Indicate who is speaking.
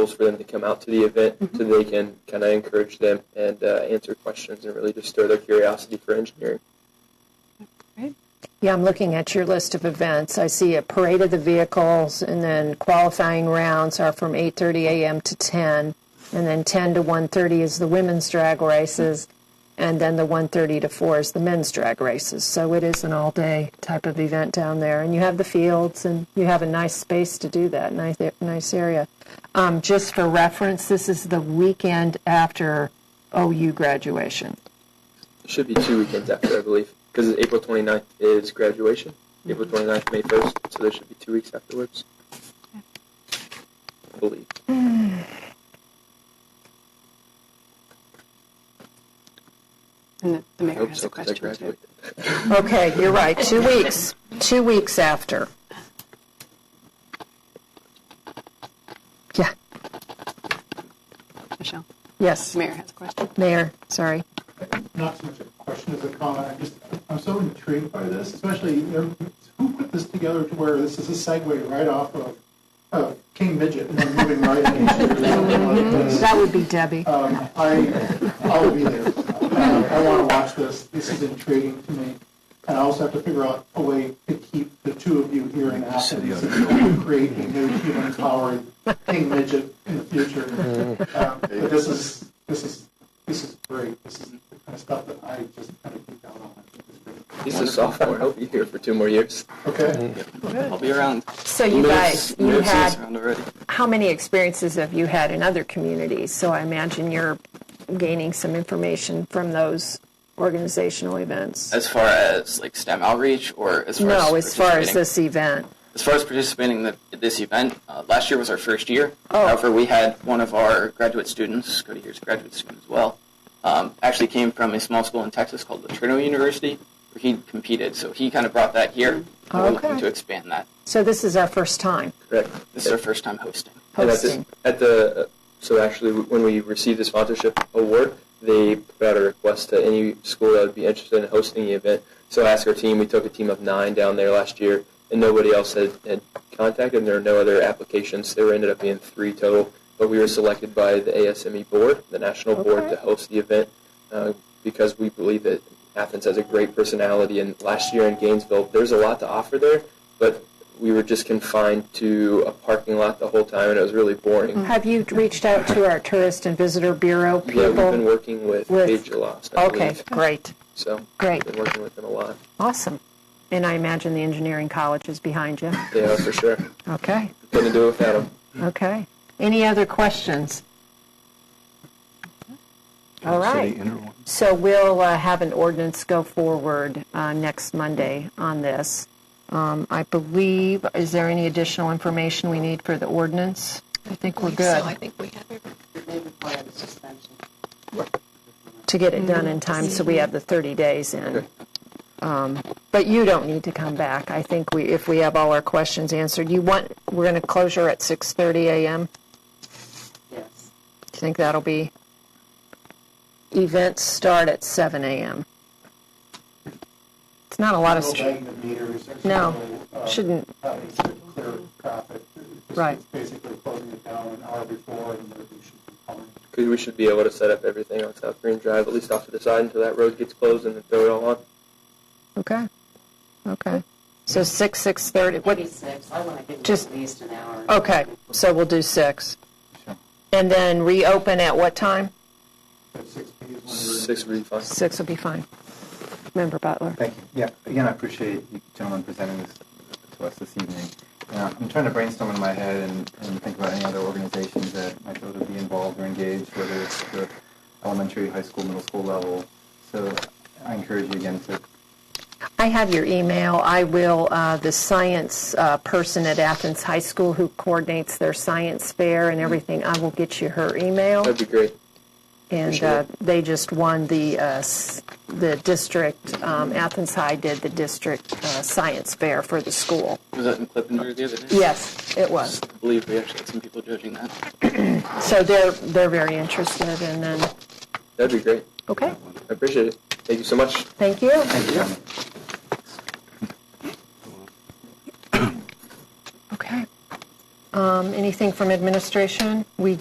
Speaker 1: tools for them to come out to the event
Speaker 2: Mm-hmm.
Speaker 1: so they can kind of encourage them and uh, answer questions and really just stir their curiosity for engineering.
Speaker 3: Yeah, I'm looking at your list of events. I see a parade of the vehicles, and then qualifying rounds are from 8:30 a.m. to 10, and then 10 to 1:30 is the women's drag races, and then the 1:30 to 4 is the men's drag races. So it is an all-day type of event down there, and you have the fields, and you have a nice space to do that. Nice, nice area. Um, just for reference, this is the weekend after OU graduation.
Speaker 1: It should be two weekends after, I believe, because April 29th is graduation,
Speaker 2: Mm-hmm.
Speaker 1: April 29th, May 1st, so there should be two weeks afterwards. I believe.
Speaker 2: And the, the
Speaker 1: I
Speaker 2: mayor
Speaker 1: hope
Speaker 2: has
Speaker 1: so,
Speaker 2: a
Speaker 1: 'cause I
Speaker 2: question too.
Speaker 1: graduated.
Speaker 3: Okay, you're right. Two weeks. Two weeks after. Yeah.
Speaker 2: Michelle,
Speaker 3: Yes.
Speaker 2: the mayor has a question.
Speaker 3: Mayor, sorry.
Speaker 4: not so much a question as a comment. I'm just, I'm so intrigued by this, especially you know, who put this together to where this is a segue right off of, of King Midget and then moving right into something like this.
Speaker 3: That would be Debbie.
Speaker 4: Um, I, I'll be there. Uh, I want to watch this. This is intriguing to me. And I also have to figure out a way to keep the two of you here in Athens and create a new human-powered King Midget in the future. Um, But this is, this is, this is great. This is the kind of stuff that I just kind of geek out on. It's great.
Speaker 1: He's a sophomore. I'll be here for two more years.
Speaker 4: Okay?
Speaker 5: I'll be around.
Speaker 3: So you guys, you
Speaker 5: Liz is
Speaker 3: had,
Speaker 5: around already.
Speaker 3: how many experiences have you had in other communities? So I imagine you're gaining some information from those organizational events.
Speaker 5: As far as like STEM outreach, or as far
Speaker 3: No,
Speaker 5: as
Speaker 3: as far as
Speaker 5: participating?
Speaker 3: this event.
Speaker 5: as far as participating in the, this event, uh, last year was our first year.
Speaker 3: Oh.
Speaker 5: However, we had one of our graduate students, Cody here's a graduate student as well, um, actually came from a small school in Texas called Laterno University, where he competed. So he kind of brought that here. and We're looking
Speaker 3: Oh, Okay.
Speaker 5: to expand that.
Speaker 3: So this is our first time
Speaker 1: Correct.
Speaker 5: This is our first time hosting.
Speaker 3: Oh.
Speaker 1: And at,
Speaker 3: hosting.
Speaker 1: the, at the uh, so actually when we received the sponsorship award, they put out a request to any school that would be interested in hosting the event. So I asked our team. We took a team of nine down there last year, and nobody else had, had contacted. And there were no other applications. There ended up being three total, but we were selected by the ASME E board, the national board,
Speaker 3: Okay.
Speaker 1: to host the event uh, because we believe that Athens has a great personality. And last year in Gainesville, there's a lot to offer there, but we were just confined to a parking lot the whole time, and it was really boring.
Speaker 3: Have you reached out to our Tourist and Visitor Bureau
Speaker 1: Yeah, we've been
Speaker 3: people?
Speaker 1: working with,
Speaker 3: with-
Speaker 1: Paige Lost. I
Speaker 3: Okay,
Speaker 1: believe.
Speaker 3: great.
Speaker 1: So
Speaker 3: Great.
Speaker 1: Been working with them a lot.
Speaker 3: Awesome. And I imagine the engineering college is behind you.
Speaker 1: Yeah, for sure.
Speaker 3: Okay,
Speaker 1: Couldn't do it without them.
Speaker 3: okay. Any other questions? All right. So we'll uh, have an ordinance go forward uh, next Monday on this. Um, I believe, is there any additional information we need for the ordinance? I think we're good
Speaker 6: So I think we have everything.
Speaker 3: to get it done in time, so we have the 30 days in. Um, But you don't need to come back. I think we, if we have all our questions answered, you want, we're going to closure at 6:30 a.m.?
Speaker 7: Yes.
Speaker 3: Do you think that'll be? Events start at 7 a.m. It's not a lot of,
Speaker 4: No
Speaker 3: str-
Speaker 4: banging the meters. There's
Speaker 3: No,
Speaker 4: uh,
Speaker 3: shouldn't.
Speaker 4: having to Clear traffic. It's just
Speaker 3: Right.
Speaker 4: Basically closing it down an hour before and then we should be coming.
Speaker 1: 'Cause we should be able to set up everything on South Green Drive, at least off to the side, until that road gets closed, and then throw it all on.
Speaker 3: okay, okay. So 6, 6:30, what,
Speaker 7: Maybe six, I want to give
Speaker 3: Just-
Speaker 7: them at least an hour.
Speaker 3: okay, so we'll do 6. And then reopen at what time?
Speaker 4: At six P is when we're-
Speaker 1: Six would be fine.
Speaker 3: 6 will be fine. Member Butler.
Speaker 8: Thank you. Yeah, again, I appreciate you gentlemen presenting this to us this evening. Uh, I'm trying to brainstorm in my head and, and think about any other organizations that might be able to be involved or engaged, whether it's the elementary, high school, middle school level. So I encourage you again to
Speaker 3: I have your email. I will, uh, the science uh, person at Athens High School who coordinates their science fair and everything, I will get you her email.
Speaker 1: That'd be great.
Speaker 3: And
Speaker 1: Appreciate
Speaker 3: uh,
Speaker 1: it.
Speaker 3: they just won the, uh, s- the district, um, Athens High did the district uh, science fair for the school.
Speaker 5: Was that in Clippinger the other day?
Speaker 3: Yes, it was.
Speaker 5: I believe we actually had some people judging that.
Speaker 3: So they're, they're very interested and then,
Speaker 1: That'd be great.
Speaker 3: okay,
Speaker 1: I appreciate it. Thank you so much.
Speaker 3: thank you. Okay. Um, anything from administration? We